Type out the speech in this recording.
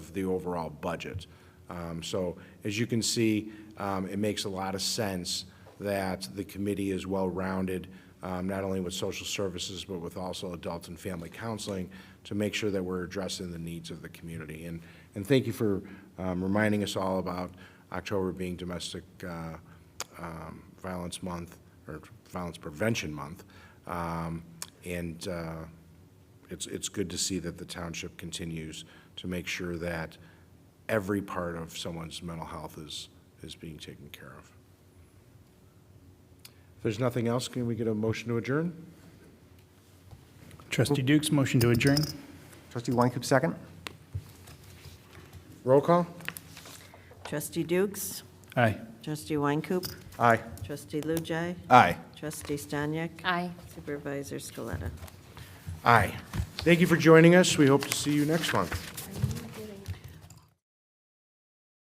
of the overall budget. Um, So as you can see, um, it makes a lot of sense that the committee is well-rounded, um, not only with social services, but with also adult and family counseling, to make sure that we're addressing the needs of the community. And, and thank you for um, reminding us all about October being Domestic uh, um, Violence Month, or Violence Prevention Month. Um, And uh, it's, it's good to see that the township continues to make sure that every part of someone's mental health is, is being taken care of. If there's nothing else, can we get a motion to adjourn? Trustee Dukes, motion to adjourn. Trustee Weincoop, second. Roll call? Trustee Dukes, Aye. Trustee Weincoop, Aye. Trustee Lujai, Aye. Trustee Stanyek. Aye. Supervisor Scaletta. Aye. Thank you for joining us. We hope to see you next month.